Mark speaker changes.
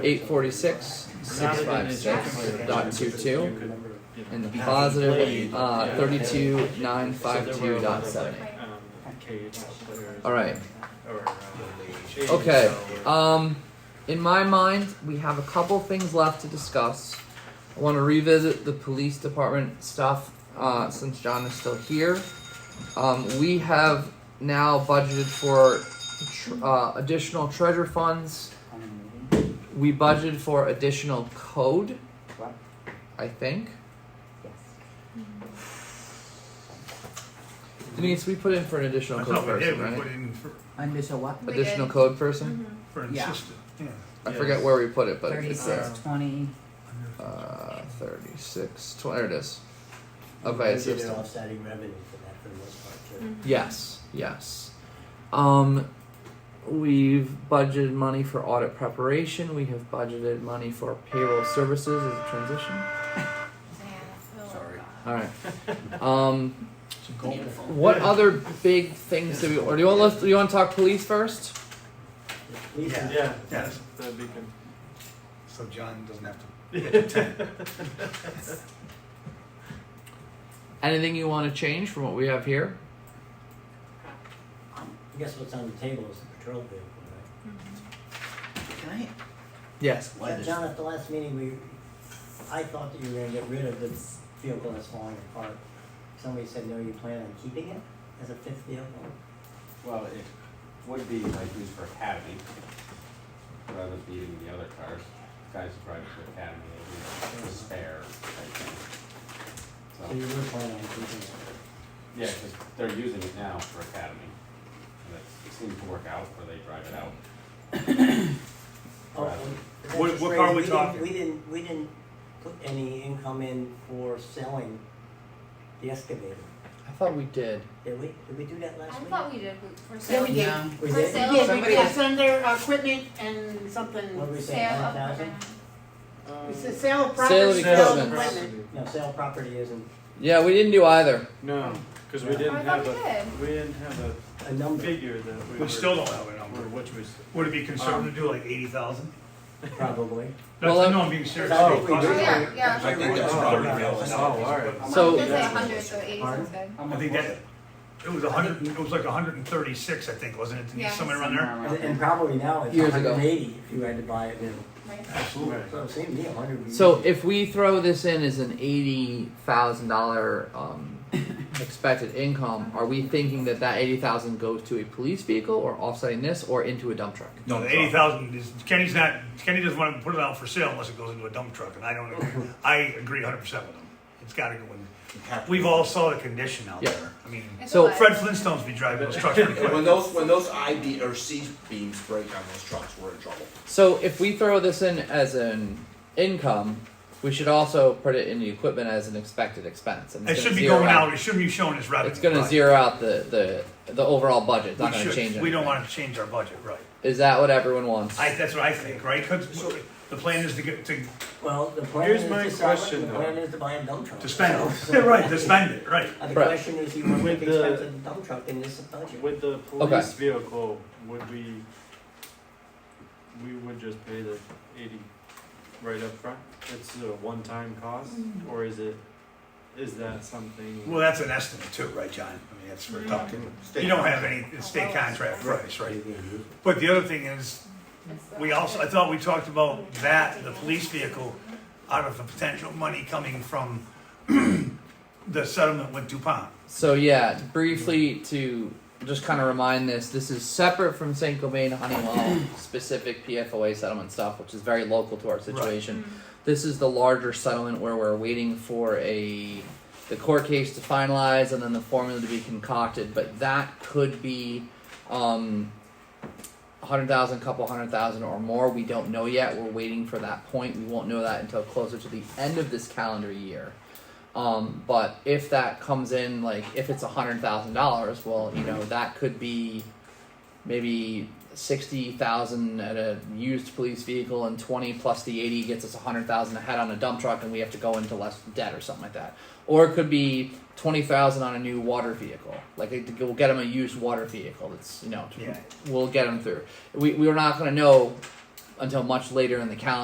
Speaker 1: eight forty six six five six dot two two and the positive uh, thirty two nine five two dot seven eight.
Speaker 2: Um,
Speaker 1: All right.
Speaker 2: uh,
Speaker 1: Okay. Um, in my mind, we have a couple things left to discuss. I want to revisit the police department stuff uh, since John is still here. Um, we have now budgeted for tr- uh, additional treasure funds. We budgeted for additional code.
Speaker 3: What?
Speaker 1: I think.
Speaker 3: Yes.
Speaker 1: Denise, we put in for an additional
Speaker 4: I
Speaker 1: code
Speaker 4: thought we
Speaker 1: person,
Speaker 4: did, we
Speaker 1: right?
Speaker 4: put in for,
Speaker 3: Under so what?
Speaker 5: We
Speaker 1: Additional
Speaker 5: did.
Speaker 1: code person.
Speaker 4: for
Speaker 3: Yeah.
Speaker 4: insistent, yeah.
Speaker 1: I forget where we put it, but uh, it's there.
Speaker 3: Thirty-six, twenty.
Speaker 1: Uh, 36, 20, there it is. Okay, it's
Speaker 6: Budgeted
Speaker 1: just-
Speaker 6: offsetting revenue for that for the most part too.
Speaker 7: Mm-hmm.
Speaker 1: Yes, yes. Um, we've budgeted money for audit preparation. We have budgeted money for payroll services as a transition.
Speaker 5: Sorry.
Speaker 1: All right. Um, what other big things do we? Or do you want? Do you want to talk police first?
Speaker 6: Please,
Speaker 2: Yeah,
Speaker 4: Yes.
Speaker 2: that'd be good.
Speaker 4: So John doesn't have to.
Speaker 1: Anything you want to change from what we have here?
Speaker 6: I guess what's on the table is the patrol vehicle, right?
Speaker 3: Can I?
Speaker 1: Yes.
Speaker 3: Why does-
Speaker 6: John, at the last meeting, we, I thought that you were gonna get rid of the vehicle that's falling apart. Somebody said, no, you plan on keeping it as a fifth vehicle?
Speaker 8: Well, it would be like used for academy, rather than beating the other cars. Guys who drive to academy, they need a spare type thing.
Speaker 6: So you
Speaker 8: So,
Speaker 6: were planning on keeping it?
Speaker 8: yeah, because they're using it now for academy. And it's- it seems to work out where they drive it out.
Speaker 6: Oh,
Speaker 8: Right.
Speaker 6: that
Speaker 4: What-
Speaker 6: just
Speaker 4: what car are
Speaker 6: raised-
Speaker 4: we
Speaker 6: didn't-
Speaker 4: talking?
Speaker 6: We didn't, we didn't put any income in for selling the excavator,
Speaker 1: I thought we did.
Speaker 6: did we? Did we do that
Speaker 5: I
Speaker 6: last week?
Speaker 5: thought we did we- for
Speaker 7: Yeah,
Speaker 5: sale.
Speaker 7: we did.
Speaker 3: No.
Speaker 6: We
Speaker 5: For
Speaker 6: did?
Speaker 5: sale.
Speaker 7: Yeah, we
Speaker 3: Somebody
Speaker 7: did
Speaker 3: was-
Speaker 7: send their equipment and something,
Speaker 6: What did we say,
Speaker 5: Sale
Speaker 6: hundred
Speaker 5: of
Speaker 6: thousand?
Speaker 2: Um,
Speaker 7: it's a sale of
Speaker 1: Sale of
Speaker 7: property,
Speaker 1: equipment.
Speaker 7: sale of equipment.
Speaker 6: No, sale property isn't
Speaker 1: Yeah, we didn't do either.
Speaker 2: No, because we
Speaker 6: Yeah.
Speaker 5: Oh, I
Speaker 2: didn't
Speaker 5: thought
Speaker 2: have
Speaker 5: we
Speaker 2: a,
Speaker 5: did.
Speaker 2: we didn't have
Speaker 6: a
Speaker 2: a
Speaker 6: number,
Speaker 2: figure that we were.
Speaker 4: We still don't have a
Speaker 2: Or
Speaker 4: number.
Speaker 2: which was,
Speaker 4: Would it be conservative to do like eighty thousand?
Speaker 6: probably.
Speaker 1: Well,
Speaker 4: No, no, I'm being serious.
Speaker 6: I think we
Speaker 4: Cost-
Speaker 6: do.
Speaker 5: Oh, yeah, yeah.
Speaker 6: I think
Speaker 4: that's
Speaker 6: probably
Speaker 2: Um, oh, alright.
Speaker 1: So-
Speaker 5: Mine says like 100, so 80
Speaker 6: Pardon?
Speaker 5: sounds good.
Speaker 4: I think that, it was a hundred, it was like a hundred and thirty-six, I think, wasn't it,
Speaker 5: Yeah,
Speaker 4: Denise, somewhere around there?
Speaker 6: And and probably now it's
Speaker 1: Years ago.
Speaker 6: 180 if you had to buy it new.
Speaker 5: Right.
Speaker 2: Absolutely.
Speaker 6: So it seemed to me 100.
Speaker 1: So if we throw this in as an eighty thousand dollar um, expected income, are we thinking that that eighty thousand goes to a police vehicle, or offsetting this, or into a dump truck?
Speaker 4: No, the eighty thousand is, Kenny's not, Kenny doesn't wanna put it out for sale unless it goes into a dump truck, and I don't agree. I agree hundred percent with him. It's gotta go in. We've all saw the condition out
Speaker 1: Yeah.
Speaker 4: there. I mean,
Speaker 5: It's
Speaker 1: So
Speaker 5: alive.
Speaker 4: Fred Flintstone's be driving those trucks pretty
Speaker 9: And when
Speaker 4: quick.
Speaker 9: those when those I be- or C beams break on those trucks, we're in trouble.
Speaker 1: So if we throw this in as an income, we should also put it in the equipment as an expected expense. And
Speaker 4: It
Speaker 1: it's
Speaker 4: should
Speaker 1: gonna
Speaker 4: be
Speaker 1: zero
Speaker 4: going
Speaker 1: out-
Speaker 4: out, it shouldn't be shown as revenue.
Speaker 1: It's going to
Speaker 4: Right.
Speaker 1: zero out the the the overall budget. It's
Speaker 4: We
Speaker 1: not going to
Speaker 4: should.
Speaker 1: change.
Speaker 4: We don't
Speaker 1: anything.
Speaker 4: wanna change our budget, right.
Speaker 1: Is that what everyone wants?
Speaker 4: I, that's what I think, right? 'Cause the plan is to get, to,
Speaker 6: Well, the plan
Speaker 2: Here's
Speaker 6: is
Speaker 2: my
Speaker 6: to sell it,
Speaker 2: question,
Speaker 6: the
Speaker 2: though.
Speaker 6: plan is to buy a dump truck.
Speaker 4: to spend
Speaker 6: So-
Speaker 4: it. Right, to spend it, right.
Speaker 6: Uh, The
Speaker 1: Right.
Speaker 6: question is, you want to
Speaker 2: With
Speaker 6: make
Speaker 2: the-
Speaker 6: expensive dump truck in this budget?
Speaker 2: With the police vehicle, would we, we would just pay the eighty right up front? It's a one-time cost, or is it, is that something?
Speaker 4: Well, that's an estimate too, right, John? I mean, that's for talking.
Speaker 9: State-
Speaker 4: You don't have any it's state contract price, right? But the other thing is, we also, I thought we talked about that, the police vehicle, out of the potential money coming from the settlement with DuPont.
Speaker 1: So yeah, briefly to just kind of remind this, this is separate from St. Gobain Honeywell specific PFOA settlement stuff, which is very local to our situation. This is the larger settlement where we're waiting for a the court case to finalize and then the formula to be concocted, but that could be um, hundred thousand, couple hundred thousand or more. We don't know yet. We're waiting for that point. We won't know that until closer to the end of this calendar year. Um, but if that comes in, like if it's a hundred thousand dollars, well, you know that could be maybe sixty thousand at a used police vehicle, and twenty plus the eighty gets us a hundred thousand ahead on a dump truck, and we have to go into less debt or something like that. Or it could be twenty thousand on a new water vehicle. Like it- we'll get them a used water vehicle. That's you know
Speaker 4: Yeah.
Speaker 1: we'll get them through. We we're not gonna know until much later in the calendar.